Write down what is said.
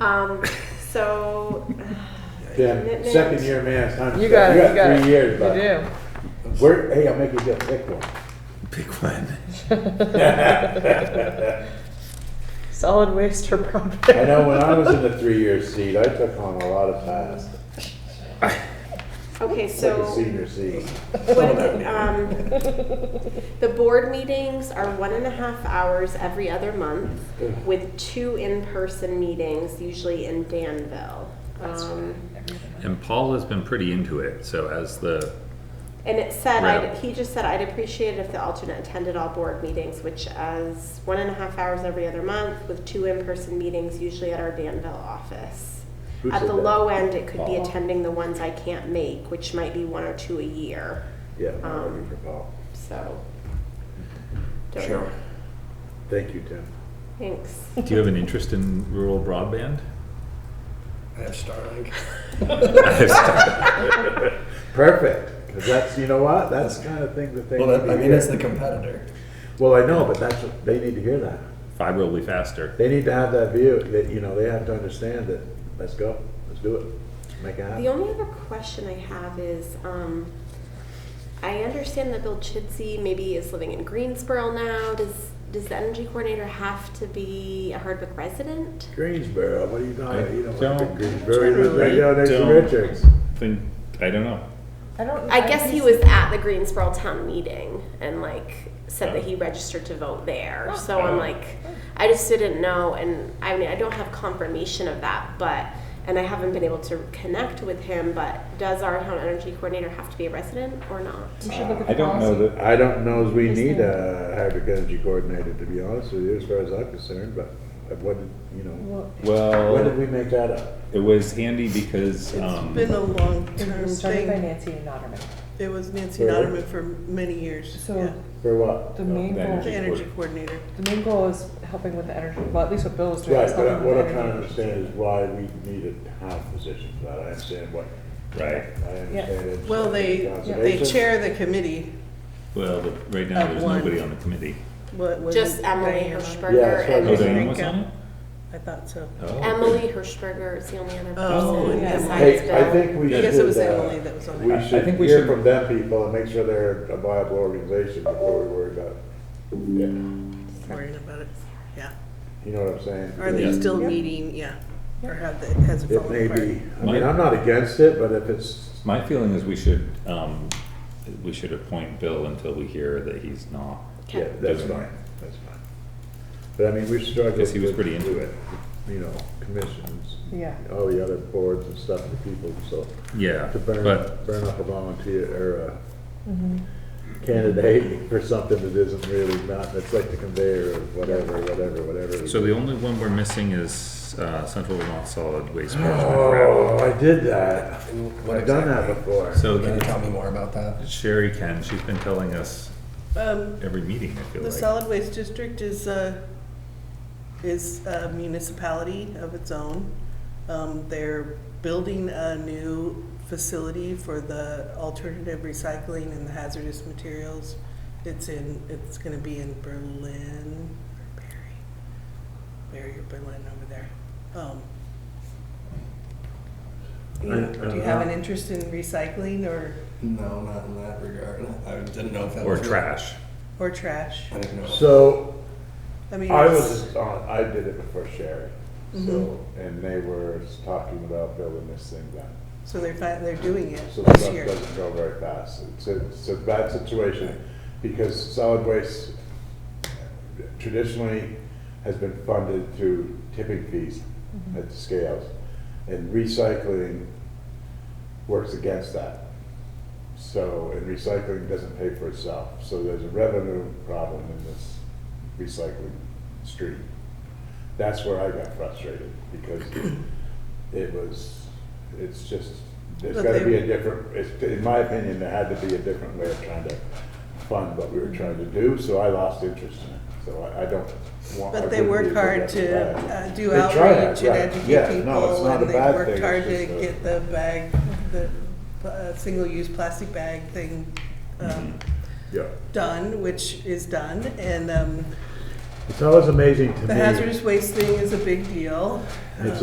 Um, so, Yeah, second year man, time. You got it, you got it. Three years, bud. You We're, hey, I'll make you get pick one. Pick one. do. Solid waste or property. I know when I was in the three-year seat, I took on a lot of tasks, okay, like a so, senior seat. what, um, the board meetings are one and a half hours every other month with two in-person meetings, usually in Danville. Um, And Paul has been pretty into it, so as the, And it said, Right. I'd, he just said, I'd appreciate it if the alternate attended all board meetings, which is one and a half hours every other month with two in-person meetings, usually at our Danville office. Who At said the that? low end, it could be Paul. attending the ones I can't make, which might be one or two a year, Yeah, I'm Um, ready for Paul. so. don't know. Sure. Thank you, Tim. Thanks. do you have an interest in rural broadband? I have Starlink. Perfect, because that's, you know what, that's the kind of thing that they Well, need that, I to mean, it's hear. the competitor. Well, I know, but that's, what- they need to hear that. Fiber will be faster. They need to have that view, that, you know, they have to understand that, let's go, let's do it, make it The happen. only other question I have is, um, I understand that Bill Chidsey maybe is living in Greensboro now. Does, does the energy coordinator have to be a Hardwick resident? Greensboro, what are you I doing? You don't live in don't- Greensboro, you live right down next to Don't Richards. Think, I don't know. I don't. I guess he was at the Greensboro town meeting and like said that he registered to vote there. So I'm like, I just didn't know, and I mean, I don't have confirmation of that, but, and I haven't been able to connect with him, but does our town energy coordinator have to be a resident or not? We should look at the I don't know policy. that, I don't know as we Yes, need ma'am. a hybrid energy coordinator, to be honest with you, as far as I'm concerned, but what, did you know, Well, when did well, we make that up? it was handy because, um, Been a It long-term was started by thing. Nancy Noderman. It was Nancy Really? Noderman for many years, yeah. So For what? the main that goal, The energy- energy coordinator. the main goal is helping with the energy, well, at least what Bill was doing. Right, is but helping with what I'm the trying to energy. understand is why we need a town position for that, I understand what, right, I understand. it's Well, they, they conservation. chair the committee, well, but right now, Of there's one. nobody on the committee. what was it? Just Emily Diana? Hirschberger Yeah, Oh, that's and Diane was on it? I thought so. Oh. Emily Hirschberger is the only other Oh, person yeah. besides Hey, I Bill. think we should. I guess it was uh, Emily that was on We it. I- I should think we hear should- from them people and make sure they're a viable organization before we worry about, yeah, Worrying about it, yeah. you know what I'm saying? Are Because they Yeah. still meeting, yeah, or have, the- has it It fallen may apart? be, I Mike? mean, I'm not against it, but if it's, My feeling is we should, um, we should appoint Bill until we hear that he's not. yeah, that's Doesn't- fine, that's fine. But I mean, we struggled. Because he was with- pretty into it. You know, commissions, Yeah. all the other boards and stuff, the people, so. Yeah, to burn, but burn up a volunteer or uh, a Mm-hmm. candidate for something that isn't really not, that's like the conveyor of whatever, whatever, whatever. So the only one we're missing is uh, Central Vermont Solid Waste Management Oh, Rep. I did that. What I've done that exactly? before. So Can you then tell me more about that? Sherry can, she's been telling us Um, every meeting, I feel The like. solid waste district is a, is a municipality of its own. Um, they're building a new facility for the alternative recycling and the hazardous materials. It's in, it's gonna be in Berlin, or Barry, Barry or Berlin over there. Um, you know, Do uh, you have an interest in recycling or, No, not in that regard. I didn't know if that Or was. trash. or trash? I didn't know. So I mean, I it's- was on, I did it before Sherry. Mm-hmm. So, and they were talking about building this thing down. so they're, fin- they're doing it So the this stuff year. doesn't go very fast. It's a, it's a bad situation because solid waste traditionally has been funded through tipping fees Mm-hmm. at the scales. And recycling works against that. So, and recycling doesn't pay for itself. So there's a revenue problem in this recycling stream. That's where I got frustrated because it was, it's just, there's But gotta they- be a different, it's- in my opinion, there had to be a different way of trying to fund what we were trying to do, so I lost interest in it. So I, I don't want. I But they wouldn't be work hard against to that. uh, do They try that, outreach and right. Yeah, educate no, it's people, not a and they bad worked thing, hard it's to just a- get the bag, the uh, single-use plastic bag thing um, Yeah. done, which is done, and um, It's always amazing to me. the hazardous waste thing is a big deal. It's